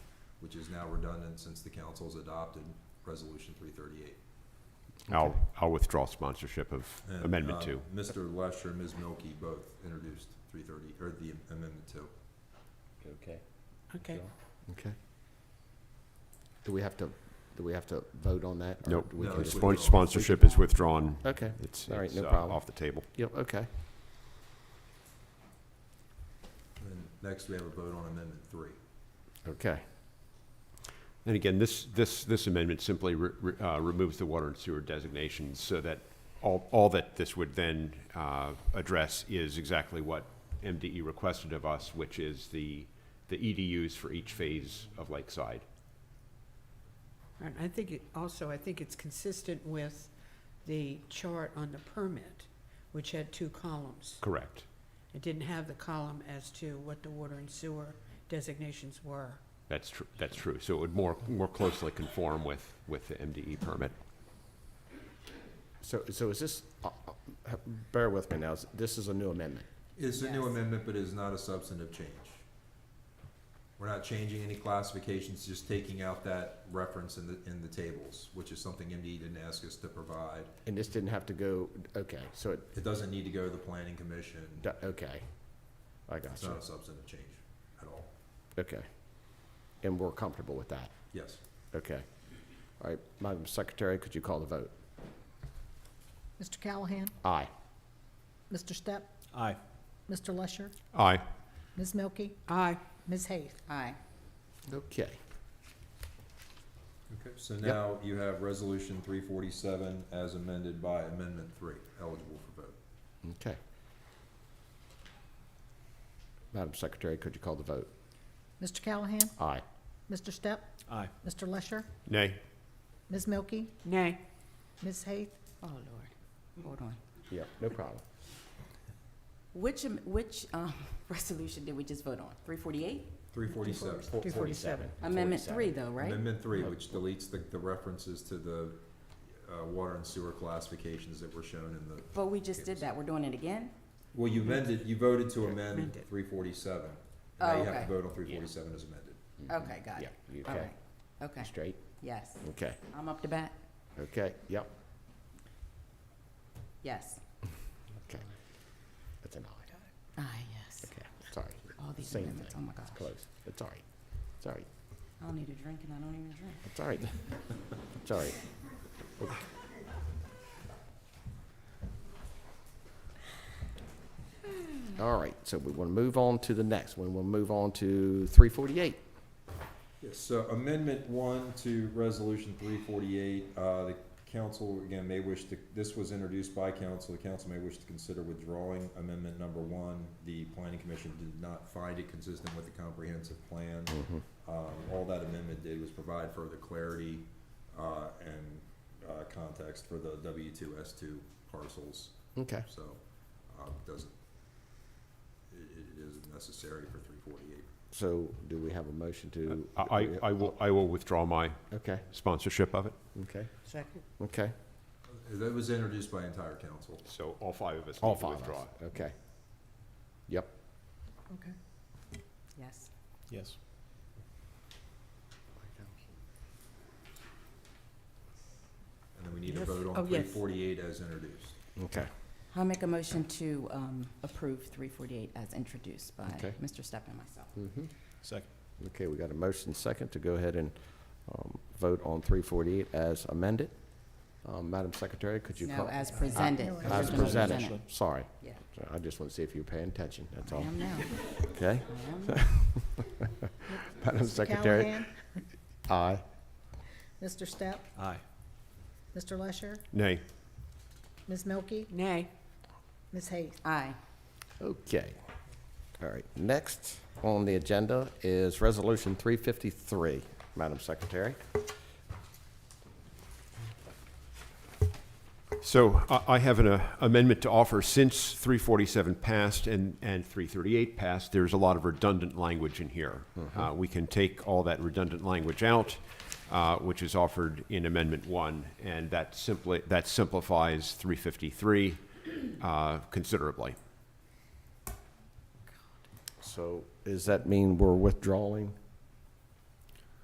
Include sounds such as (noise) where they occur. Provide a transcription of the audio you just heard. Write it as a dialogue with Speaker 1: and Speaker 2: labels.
Speaker 1: which is now redundant since the council's adopted Resolution three thirty-eight.
Speaker 2: I'll, I'll withdraw sponsorship of
Speaker 3: Uh,
Speaker 2: Amendment Two.
Speaker 1: Mr. uh, Lesher and Ms. Milky both introduced three thirty, or the amendment two.
Speaker 4: Okay.
Speaker 5: Okay.
Speaker 3: Okay. Do we have to, do we have to vote on that? or
Speaker 2: Nope.
Speaker 3: do we
Speaker 1: No,
Speaker 3: can-
Speaker 1: it's-
Speaker 2: Spon- Sponsorship is withdrawn.
Speaker 3: Okay,
Speaker 2: It's,
Speaker 3: All right,
Speaker 2: it's
Speaker 3: no
Speaker 2: uh,
Speaker 3: problem.
Speaker 2: off the table.
Speaker 3: yep, okay.
Speaker 1: And next, we have a vote on amendment three.
Speaker 3: Okay,
Speaker 2: And again, this, this, this amendment simply re- re- uh, removes the water and sewer designations so that all, all that this would then uh, address is exactly what MDE requested of us, which is the, the EDUs for each phase of Lakeside.
Speaker 5: And I think it, also, I think it's consistent with the chart on the permit, which had two columns.
Speaker 2: Correct.
Speaker 5: It didn't have the column as to what the water and sewer designations were.
Speaker 2: That's true, that's true. So it would more, more closely conform with, with the MDE permit.
Speaker 3: so, so is this, uh, uh, h- bear with me now, this is a new amendment.
Speaker 1: It's a new
Speaker 5: Yes.
Speaker 1: amendment, but it is not a substantive change. We're not changing any classifications, just taking out that reference in the, in the tables, which is something MDE didn't ask us to provide.
Speaker 3: And this didn't have to go, okay, so it,
Speaker 1: It doesn't need to go to the planning commission.
Speaker 3: do- okay. I got
Speaker 1: It's
Speaker 3: you,
Speaker 1: not a substantive change at all.
Speaker 3: okay. And we're comfortable with that,
Speaker 1: Yes.
Speaker 3: okay. All right, Madam Secretary, could you call the vote?
Speaker 6: Mr. Callahan?
Speaker 3: Aye.
Speaker 6: Mr. Step?
Speaker 4: Aye.
Speaker 6: Mr. Lusher?
Speaker 2: Aye.
Speaker 6: Ms. Milky?
Speaker 5: Aye.
Speaker 6: Ms. Hayes?
Speaker 5: Aye.
Speaker 3: Okay,
Speaker 1: Okay. So now you have resolution three forty-seven as amended by amendment three, eligible for vote.
Speaker 3: okay. Madam Secretary, could you call the vote?
Speaker 6: Mr. Callahan?
Speaker 3: Aye.
Speaker 6: Mr. Step?
Speaker 4: Aye.
Speaker 6: Mr. Lusher?
Speaker 2: Nay.
Speaker 6: Ms. Milky?
Speaker 5: Nay.
Speaker 6: Ms. Hayes?
Speaker 7: Oh, Lord. Hold on.
Speaker 3: Yep, no problem.
Speaker 7: Which, am- which um, (laughs) resolution did we just vote on? 348?
Speaker 1: Three forty-seven.
Speaker 5: Two forty-seven.
Speaker 7: Amendment 3, though, right? Oh.
Speaker 1: Amendment three, which deletes the, the references to the, uh, water and sewer classifications that were shown in the
Speaker 7: But we just did that. We're doing it again?
Speaker 1: Well, you amended, you voted to amend
Speaker 5: Amended.
Speaker 1: three forty-seven. Now you
Speaker 7: Oh,
Speaker 1: have to
Speaker 7: okay.
Speaker 1: vote on three forty-seven as amended.
Speaker 7: Okay, got
Speaker 3: Yeah,
Speaker 7: it.
Speaker 3: you
Speaker 7: All
Speaker 3: okay?
Speaker 7: right. Okay,
Speaker 3: Straight?
Speaker 7: yes.
Speaker 3: Okay,
Speaker 7: I'm up to bat?
Speaker 3: okay, yep,
Speaker 7: Yes.
Speaker 3: okay. That's an aye.
Speaker 7: Ah, yes.
Speaker 3: Okay, sorry.
Speaker 7: All these
Speaker 3: Same
Speaker 7: amendments,
Speaker 3: thing.
Speaker 7: oh my
Speaker 3: It's
Speaker 7: gosh.
Speaker 3: close. It's all right. It's all right.
Speaker 7: I don't need a drink and I don't even drink.
Speaker 3: It's all right. It's all right. All right, so we want to move on to the next one. We'll move on to 348.
Speaker 1: Yes, so amendment one to resolution three forty-eight, uh, the council, again, may wish to, this was introduced by council, the council may wish to consider withdrawing amendment number one. The planning commission did not find it consistent with the comprehensive plan. Um, all that amendment did was provide further clarity, uh, and, uh, context for the W two, S two parcels.
Speaker 3: Okay,
Speaker 1: So, um, doesn't, it, it isn't necessary for three forty-eight.
Speaker 3: so do we have a motion to?
Speaker 2: I, I- I will, I will withdraw my
Speaker 3: Okay,
Speaker 2: sponsorship of it.
Speaker 3: okay,
Speaker 5: Second.
Speaker 3: okay.
Speaker 1: That was introduced by entire council.
Speaker 2: So all five of us
Speaker 3: All
Speaker 2: need to
Speaker 3: five of
Speaker 2: withdraw.
Speaker 3: us. Okay. Yep,
Speaker 7: Yes.
Speaker 4: Yes.
Speaker 1: And then we need to
Speaker 5: Yes.
Speaker 1: vote
Speaker 5: Oh,
Speaker 1: on three
Speaker 5: yes.
Speaker 1: forty-eight as introduced.
Speaker 3: okay.
Speaker 7: I'll make a motion to um, approve 348 as introduced by
Speaker 3: Okay.
Speaker 7: Mr. Step and myself.
Speaker 3: Mhm.
Speaker 4: Second.
Speaker 3: Okay, we got a motion second to go ahead and um, vote on 348 as amended. Um, Madam Secretary, could you
Speaker 7: No,
Speaker 3: call?
Speaker 7: as presented.
Speaker 6: No,
Speaker 3: As
Speaker 7: Original
Speaker 3: presented, sorry.
Speaker 7: Yeah.
Speaker 3: I just want to see if you're paying attention, that's
Speaker 7: I
Speaker 3: all.
Speaker 7: am now.
Speaker 3: Okay, (laughs)
Speaker 7: I am now.
Speaker 3: Madam
Speaker 6: Mr.
Speaker 3: Secretary?
Speaker 6: Callahan?
Speaker 3: Aye.
Speaker 6: Mr. Step?
Speaker 4: Aye.
Speaker 6: Mr. Lusher?
Speaker 2: Nay.
Speaker 6: Ms. Milky?
Speaker 5: Nay.
Speaker 6: Ms. Hayes?
Speaker 7: Aye.
Speaker 3: Okay. All right, next on the agenda is Resolution 353, Madam Secretary.
Speaker 2: So I- I have an uh, amendment to offer. Since 347 passed and, and 338 passed, there's a lot of redundant language in here.
Speaker 3: Mm-hmm.
Speaker 2: Uh, We can take all that redundant language out, uh, which is offered in Amendment 1, and that simply, that simplifies 353 uh, considerably.
Speaker 3: So does that mean we're withdrawing